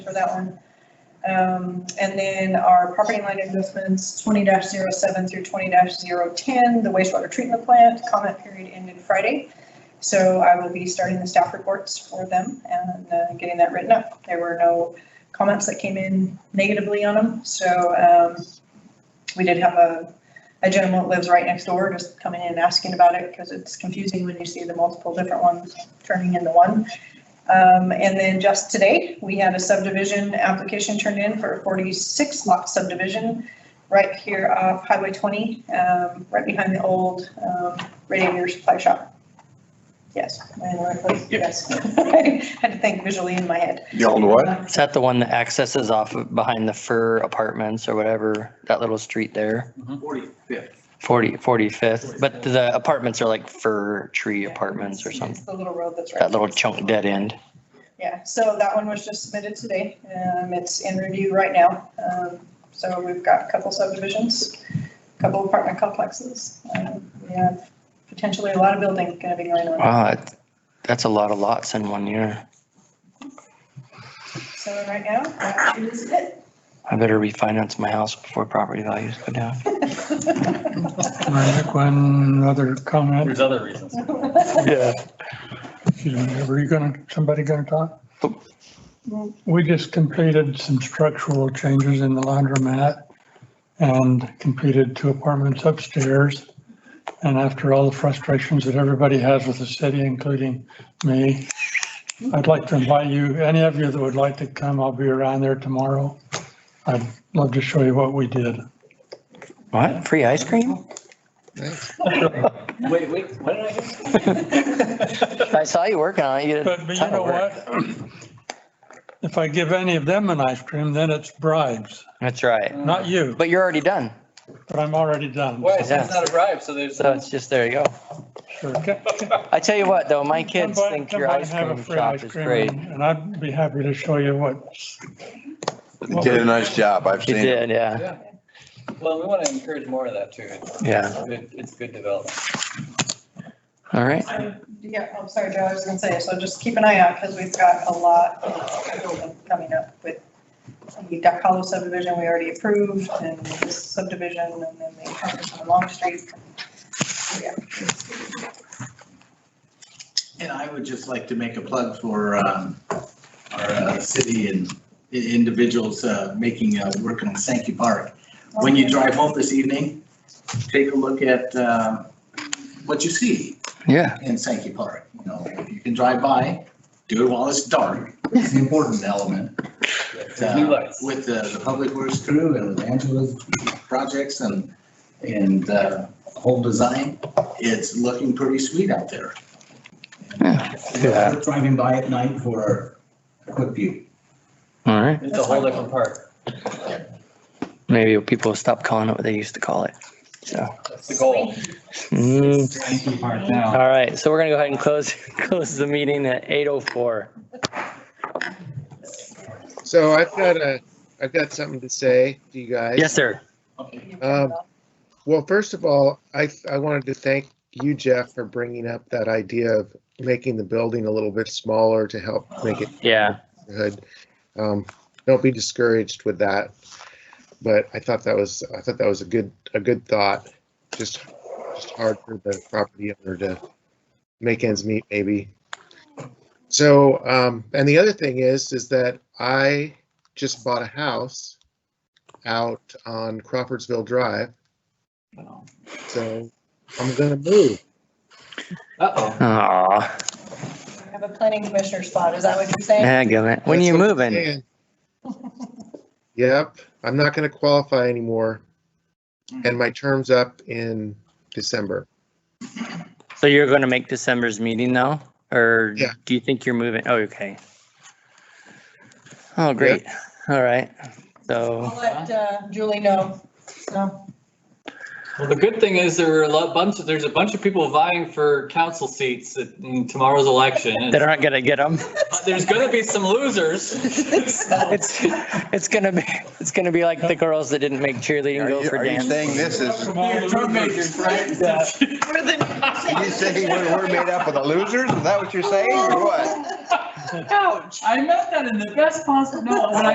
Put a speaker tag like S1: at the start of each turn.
S1: for that one. Um, and then our property line adjustments, twenty 7 through twenty 10 the wastewater treatment plant, comment period ended Friday. So I will be starting the staff reports for them and uh, getting that written up. There were no comments that came in negatively on them, so, um, we did have a, a gentleman that lives right next door just coming in and asking about it because it's confusing when you see the multiple different ones turning into one. Um, and then just today, we had a subdivision application turned in for a forty-six lot subdivision right here off Highway twenty, um, right behind the old, um, radiator supply shop. Yes, am I in the right place?
S2: Yep.
S1: yes. I had to think visually in my head. Um,
S2: The old what?
S3: Is that the one that accesses off of behind the fur apartments or whatever, that little street there?
S4: Forty-fifth.
S3: 40, 45th, but the apartments are like fir tree apartments or something,
S1: It's The little road that's right.
S3: that little chunk dead end.
S1: Yeah, so that one was just submitted today. Um, it's in review right now. Um, so we've got a couple subdivisions, a couple apartment complexes. Um, we have potentially a lot of building gonna be going on.
S3: Wow, that- that's a lot of lots in one year.
S1: So right now, that is it.
S3: I better refinance my house before property values go down.
S5: I make one other comment.
S4: There's other reasons.
S3: Yeah.
S5: Excuse me, Were you gonna, somebody gonna talk?
S1: No.
S5: We just completed some structural changes in the laundromat and completed two apartments upstairs. And after all the frustrations that everybody has with the city, including me, I'd like to invite you, any of you that would like to come, I'll be around there tomorrow. I'd love to show you what we did.
S3: What, free ice cream?
S4: Wait, wait, what did I hear?
S3: I saw you working on it. You did a
S5: But, but you
S3: ton of
S5: know
S3: work.
S5: what? If I give any of them an ice cream, then it's bribes,
S3: That's right,
S5: not you,
S3: but you're already done,
S5: but I'm already done.
S4: Wait, so it's not a bribe, so there's.
S3: so it's just, there you go.
S5: Sure. Come-
S3: I tell you what, though, my
S5: come
S3: kids
S5: by-
S3: think
S5: come
S3: your
S5: by
S3: ice
S5: and have a
S3: cream
S5: free
S3: shop
S5: ice
S3: is
S5: cream
S3: great.
S5: and- And I'd be happy to show you what,
S2: You Did a nice job. I've seen
S3: You
S2: it.
S3: did, yeah,
S4: Yeah. Well, we want to encourage more of that too. It's
S3: yeah.
S4: good, it's good development.
S3: All right.
S1: So, Um, Yeah, I'm sorry, Joe, I was gonna say, so just keep an eye out, because we've got a lot of building coming up with the Duck Hollow subdivision we already approved, and this subdivision, and then the apartments on Long Street. Yeah.
S6: And I would just like to make a plug for um, our uh, city and i- individuals uh, making, uh, work on Sankey Park. When you drive home this evening, take a look at uh, what you see
S3: Yeah.
S6: in Sankey Park. You know, if you can drive by, do it while it's dark. It's an important element. But,
S4: New
S6: uh,
S4: lights.
S6: With the the Public Works crew and with Angela's projects and, and uh, whole design, it's looking pretty sweet out there. uh,
S3: Yeah.
S6: Driving by at night for a quick view.
S3: All right.
S4: It's a whole different part.
S3: Maybe people will stop calling it what they used to call it. So.
S4: That's the goal.
S3: mm.
S6: Sankey Park now.
S3: All right. So we're gonna go ahead and close, close the meeting at 8:04.
S7: So I've got a, I've got something to say to you guys.
S3: Yes, sir.
S7: Um, Well, first of all, I, I wanted to thank you, Jeff, for bringing up that idea of making the building a little bit smaller to help make it
S3: Yeah.
S7: good. Um, don't be discouraged with that. But I thought that was, I thought that was a good, a good thought. Just, just hard for the property owner to make ends meet maybe. So, um, and the other thing is, is that I just bought a house out on Crawfordsville Drive. So I'm gonna move.
S4: Uh-oh.
S3: Aw.
S1: I Have a planning commissioner spot, is that what you're saying?
S3: Dagummit. When are you
S7: That's what I'm
S3: moving?
S7: saying. Yep, I'm not gonna qualify anymore. And my term's up in December.
S3: So you're gonna make December's meeting though? Or
S7: Yeah.
S3: do you think you're moving? Oh, okay. Oh, great. All right. So,
S1: I'll let uh, Julie know, Um, so.
S4: Well, the good thing is there were a lot, bunch of, there's a bunch of people vying for council seats in tomorrow's election.
S3: they're not gonna get them.
S4: There's going to be some losers.
S3: It's, it's gonna be, it's gonna be like the girls that didn't make cheerleading
S2: Are
S3: go
S2: you,
S3: for
S2: are you
S3: dance.
S2: saying this is,
S5: Come on,
S2: you saying we're, we're made up of the losers? Is that what you're saying or what?
S8: Ouch.
S4: I meant that in the best possible, no, when I